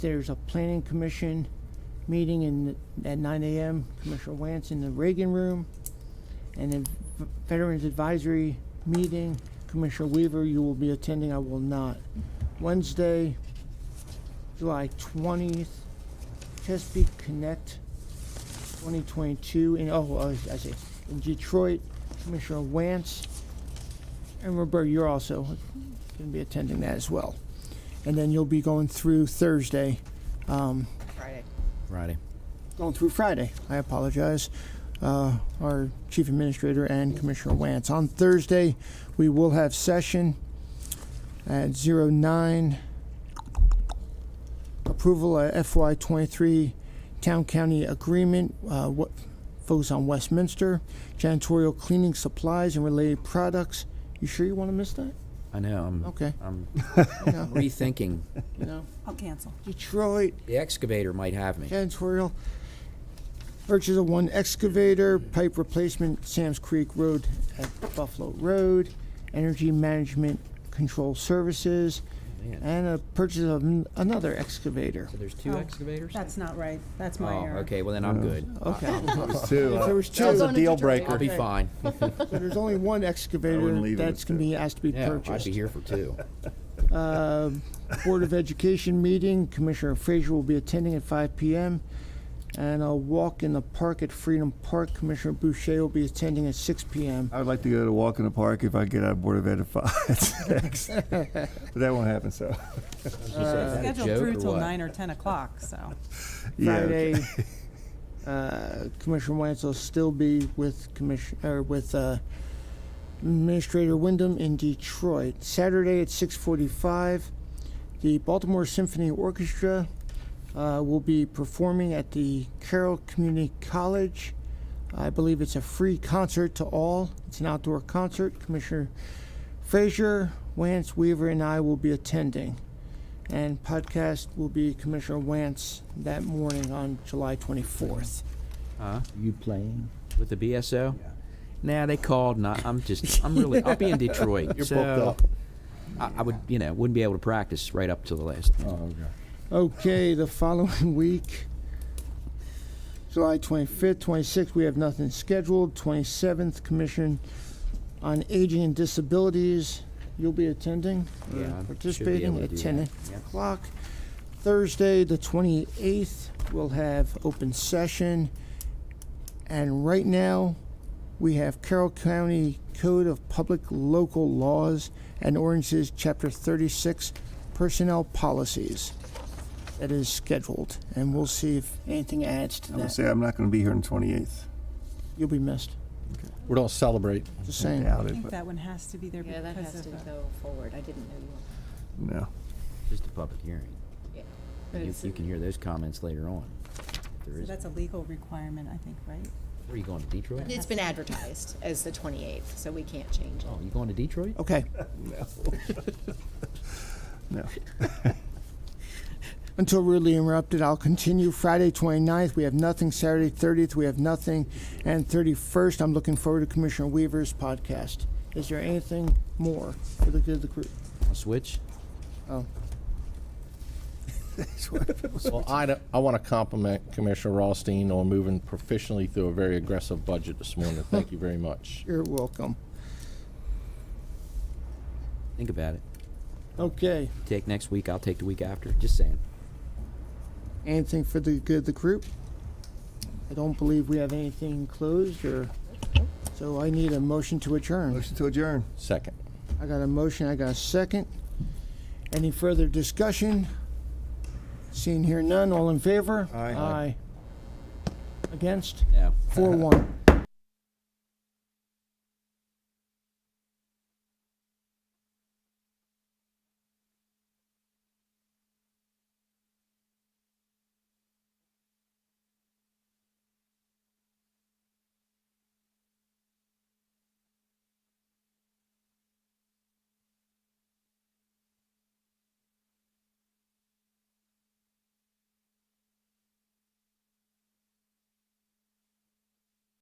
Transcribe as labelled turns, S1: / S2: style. S1: There's a planning commission meeting in, at nine AM, Commissioner Wance in the Reagan Room. And then v- Veterans Advisory Meeting, Commissioner Weaver, you will be attending, I will not. Wednesday, July twentieth, Chesapeake Connect 2022 in, oh, I was- I see, in Detroit, Commissioner Wance. And Roberta, you're also going to be attending that as well. And then you'll be going through Thursday, um,
S2: Friday.
S3: Friday.
S1: going through Friday. I apologize. Uh, our chief administrator and Commissioner Wance. On Thursday, we will have session at 09. Approval of FY23 Town County Agreement, uh, what focus on Westminster, janitorial cleaning supplies and related products. You sure you want to miss that?
S3: I know. I'm,
S1: Okay.
S3: I'm
S1: No,
S3: rethinking.
S1: no.
S2: I'll cancel.
S1: Detroit,
S3: The excavator might have me.
S1: janitorial. Purchase of one excavator, pipe replacement, Sam's Creek Road at Buffalo Road, Energy Management Control Services,
S3: Man.
S1: and a purchase of n- another excavator.
S3: So there's two
S2: Oh,
S3: excavators?
S2: That's not right. That's my
S3: Oh,
S2: error.
S3: okay. Well, then I'm good.
S1: Okay.
S4: Two.
S1: If there was
S4: That was
S1: two,
S4: a deal
S3: I'll
S4: breaker.
S3: be fine.
S1: so there's only one
S4: wouldn't
S1: excavator
S4: leave it
S1: that's
S4: at
S1: gonna be asked to be
S3: Yeah, I'd
S1: purchased.
S3: be here for two.
S1: Uh, Board of Education meeting, Commissioner Frazier will be attending at five PM. And a walk in the park at Freedom Park, Commissioner Boucher will be attending at six PM.
S4: I would like to go to walk in the park if I get out of Board of Ed at five, six. But that won't happen, so.
S2: Scheduled
S3: joke
S2: through
S3: or
S2: till
S3: what?
S2: nine or ten o'clock, so.
S4: yeah, okay.
S1: Friday, uh, Commissioner Wentz will still be with Commission, or with, uh, Administrator Wyndham in Detroit. Saturday at six forty-five, the Baltimore Symphony Orchestra, uh, will be performing at the Carroll Community College. I believe it's a free concert to all. It's an outdoor concert. Commissioner Frazier, Wance, Weaver, and I will be attending. And podcast will be Commissioner Wance that morning on July 24th.
S5: You playing?
S3: With the BSO? Nah, they called. Not. I'm just. I'm really. I'll be in Detroit. You're so
S4: booked
S3: I, I would. You know, wouldn't be able to practice right up to the last.
S5: Oh, okay.
S1: Okay, the following week, July 25th, 26th, we have nothing scheduled. 27th, Commission on Aging and Disabilities, you'll be attending, or
S3: Yeah, I should be able
S1: participating
S3: to
S1: at
S3: do
S1: 10
S3: that.
S1: o'clock. Thursday, the 28th, we'll have open session. And right now, we have Carroll County Code of Public Local Laws and Ordinances, Chapter 36, Personnel Policies. That is scheduled, and we'll see if anything adds to
S4: I'm gonna
S1: that.
S4: say I'm not gonna be here on the twenty-eighth.
S1: You'll be missed,
S5: We're all celebrate.
S1: just
S4: I
S1: saying.
S4: doubt
S2: I
S4: it,
S2: think
S4: but
S2: that one has to be there
S6: Yeah, that
S2: because
S6: has to
S2: of, the-
S6: go forward. I didn't know you.
S4: no.
S3: Just a public hearing.
S6: But
S3: And You,
S6: it's-
S3: you can hear those comments later on. If there
S2: so
S3: is.
S2: that's a legal requirement, I think, right?
S3: Where are you going to Detroit?
S6: It's been advertised as the 28th, so we can't change it.
S3: Oh, you going to Detroit?
S1: Okay,
S4: No.
S1: until rudely interrupted, I'll continue. Friday, 29th, we have nothing. Saturday, 30th, we have nothing. And 31st, I'm looking forward to Commissioner Weaver's podcast. Is there anything more for the good of the group?
S3: I'll switch.
S1: Oh,
S7: Well, I, don't- I want to compliment Commissioner Rothstein on moving proficiently through a very aggressive budget this morning. Thank you very much.
S1: you're welcome.
S3: Think about it.
S1: Okay,
S3: Take next week. I'll take the week after. Just saying.
S1: anything for the good of the group? I don't believe we have anything closed or, so I need a motion to adjourn.
S4: Motion to adjourn.
S7: Second.
S1: I got a motion, I got a second. Any further discussion? Seeing here none, all in favor?
S4: Aye.
S1: Aye. Against?
S3: Yeah.
S1: Four one.